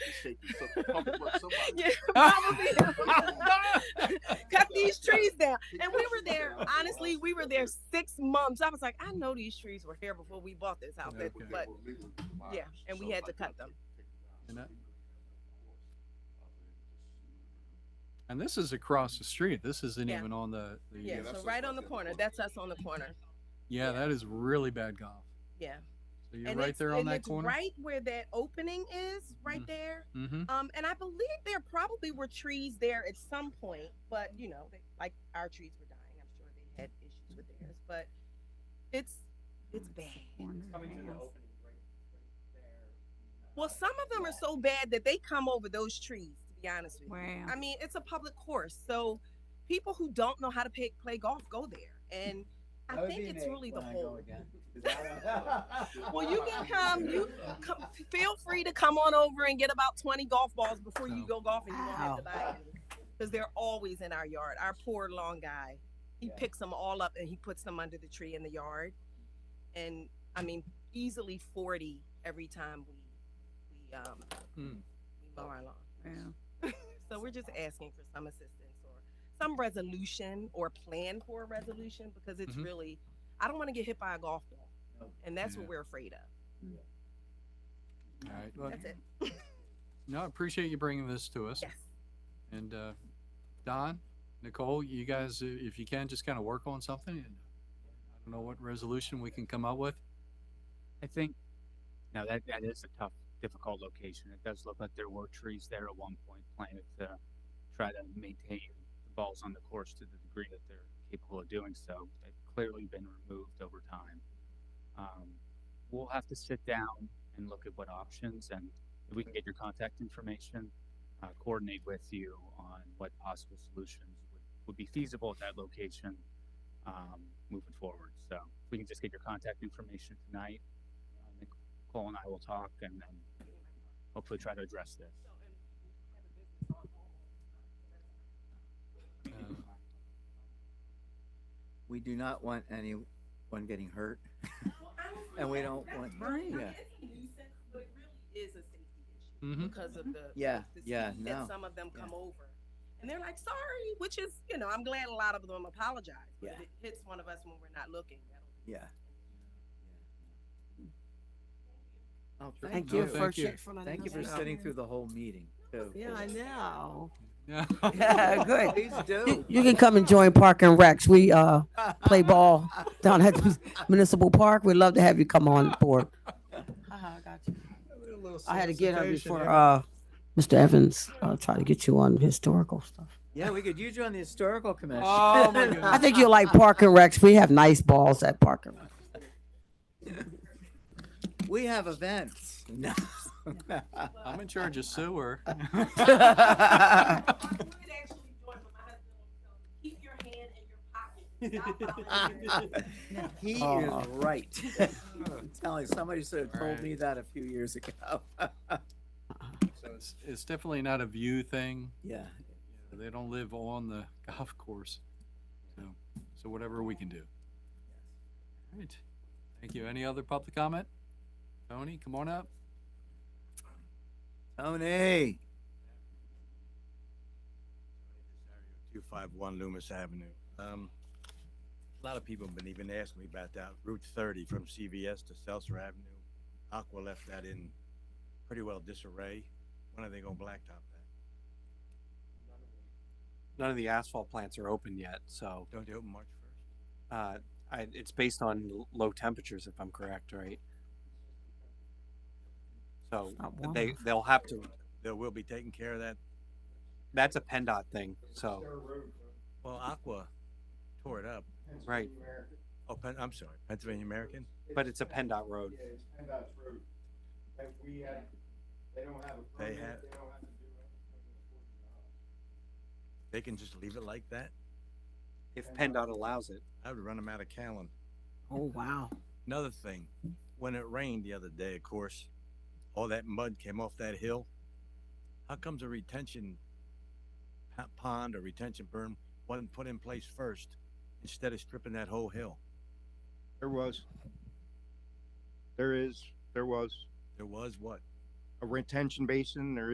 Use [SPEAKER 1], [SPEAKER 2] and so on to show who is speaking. [SPEAKER 1] shaking. So probably what somebody.
[SPEAKER 2] Yeah, probably. Cut these trees down. And we were there, honestly, we were there six months. I was like, I know these trees were here before we bought this house.
[SPEAKER 1] Okay.
[SPEAKER 2] But yeah, and we had to cut them.
[SPEAKER 1] And
[SPEAKER 3] And that- And this is across the street. This isn't
[SPEAKER 2] Yeah.
[SPEAKER 3] even on the, the uh,
[SPEAKER 2] yeah,
[SPEAKER 1] that's
[SPEAKER 2] so
[SPEAKER 1] us
[SPEAKER 2] right
[SPEAKER 1] right
[SPEAKER 2] on the
[SPEAKER 1] there.
[SPEAKER 2] corner. That's us on the corner.
[SPEAKER 3] yeah, that is really bad golf.
[SPEAKER 2] Yeah.
[SPEAKER 3] So you're
[SPEAKER 2] and
[SPEAKER 3] right
[SPEAKER 2] it's-
[SPEAKER 3] there on
[SPEAKER 2] and
[SPEAKER 3] that
[SPEAKER 2] it's
[SPEAKER 3] corner.
[SPEAKER 2] Right where that opening is, right
[SPEAKER 3] Mhm.
[SPEAKER 2] there.
[SPEAKER 3] Mm-hmm.
[SPEAKER 2] Um, and I believe there probably were trees there at some point, but you know, they, like our trees were dying. I'm sure they had issues with theirs, but it's it's bad. Well, some of them are so bad that they come over those trees. To be honest with you,
[SPEAKER 4] Wow.
[SPEAKER 2] I mean, it's a public course, so people who don't know how to play, play golf go there, and I think it's really the whole. Well, you can come. You come, feel free to come on over and get about twenty golf balls before you
[SPEAKER 3] Oh.
[SPEAKER 2] go golfing. You don't have to
[SPEAKER 4] Ow.
[SPEAKER 2] buy because they're always in our yard. Our poor long guy, he
[SPEAKER 5] Yeah.
[SPEAKER 2] picks them all up and he puts them under the tree in the yard. And I mean, easily forty every time we we um
[SPEAKER 3] Hmm.
[SPEAKER 2] we mow our lawn.
[SPEAKER 4] Wow.
[SPEAKER 2] So we're just asking for some assistance or some resolution or plan for a resolution because it's
[SPEAKER 3] Mhm.
[SPEAKER 2] really I don't want to get hit by a golf ball,
[SPEAKER 5] No.
[SPEAKER 2] and that's what
[SPEAKER 3] Yeah.
[SPEAKER 2] we're afraid of.
[SPEAKER 3] All right. Well,
[SPEAKER 2] That's it.
[SPEAKER 3] no, I appreciate you bringing this to us.
[SPEAKER 2] Yes.
[SPEAKER 3] And uh, Don, Nicole, you guys, uh, if you can, just kind of work on something. And I don't know what resolution we can come up with.
[SPEAKER 6] I think, no, that, that is a tough, difficult location. It does look like there were trees there at one point planted to try to maintain the balls on the course to the degree that they're capable of doing so. They've clearly been removed over time. Um, we'll have to sit down and look at what options and if we can get your contact information, uh, coordinate with you on what possible solutions would, would be feasible at that location, um, moving forward. So if we can just get your contact information tonight, I think Cole and I will talk and then hopefully try to address this.
[SPEAKER 3] Uh,
[SPEAKER 5] We do not want anyone getting hurt. And we don't want-
[SPEAKER 2] Right.
[SPEAKER 5] yeah.
[SPEAKER 2] It's a nuisance, but it really is a safety issue
[SPEAKER 3] Mhm.
[SPEAKER 2] because of the
[SPEAKER 5] Yeah,
[SPEAKER 2] the
[SPEAKER 5] yeah,
[SPEAKER 2] speed that
[SPEAKER 5] no,
[SPEAKER 2] some of them
[SPEAKER 5] yeah.
[SPEAKER 2] come over, and they're like, "Sorry," which is you know I'm glad a lot of them apologize. But
[SPEAKER 5] Yeah.
[SPEAKER 2] if it hits one of us when we're not looking. That'll
[SPEAKER 5] Yeah. Oh,
[SPEAKER 3] Sure.
[SPEAKER 5] thank
[SPEAKER 3] No,
[SPEAKER 5] you.
[SPEAKER 3] thank you.
[SPEAKER 5] Thank you for sitting through the whole meeting, too.
[SPEAKER 7] Yeah, I know.
[SPEAKER 3] Yeah.
[SPEAKER 4] Yeah, good.
[SPEAKER 5] Please do.
[SPEAKER 4] You, you can come and join Park and Recs. We uh play ball down at the municipal park. We'd love to have you come on board.
[SPEAKER 7] Uh-huh, I got you.
[SPEAKER 4] I had to get her before uh Mr. Evans uh, tried to get you on historical stuff.
[SPEAKER 5] Yeah, we could use you on the historical commission.
[SPEAKER 3] Oh, my
[SPEAKER 4] I
[SPEAKER 3] goodness.
[SPEAKER 4] think you'll like Park and Recs. We have nice balls at Park and Recs.
[SPEAKER 5] We have events. No.
[SPEAKER 3] I'm in charge of sewer.
[SPEAKER 2] I would actually join, but my husband will tell me, keep your hand in your pocket. Stop following your
[SPEAKER 5] He
[SPEAKER 4] Oh.
[SPEAKER 5] is right. I'm telling you, somebody should have told me that a few years ago.
[SPEAKER 3] So it's, it's definitely not a view thing.
[SPEAKER 5] Yeah.
[SPEAKER 3] you know, They don't live on the golf course. So, so whatever we can do. All right. Thank you. Any other public comment? Tony, come on up.
[SPEAKER 5] Tony.
[SPEAKER 8] 251 Loomis Avenue. Um, A lot of people have been even asking me about that Route 30 from CVS to Seltzer Avenue. Aqua left that in pretty well disarray. When are they gonna blacktop that?
[SPEAKER 9] none of the asphalt plants are open yet. So
[SPEAKER 8] Don't they open March 1st?
[SPEAKER 9] uh, I, it's based on l- low temperatures, if I'm correct, right? So
[SPEAKER 4] not warm
[SPEAKER 9] they they'll have to.
[SPEAKER 8] They will be taking care of that.
[SPEAKER 9] That's a PennDOT thing. So
[SPEAKER 8] Well, Aqua tore it up.
[SPEAKER 9] right,
[SPEAKER 8] Oh, Pen- I'm sorry, Pennsylvania American?
[SPEAKER 9] but it's a PennDOT road.
[SPEAKER 8] They have. They can just leave it like that?
[SPEAKER 9] If PennDOT allows it,
[SPEAKER 8] I would run them out of Callan.
[SPEAKER 4] Oh wow.
[SPEAKER 8] Another thing, when it rained the other day, of course, all that mud came off that hill. How comes a retention po- pond or retention berm wasn't put in place first instead of stripping that whole hill?
[SPEAKER 10] There was. There is, there was
[SPEAKER 8] There was what?
[SPEAKER 10] a retention basin, there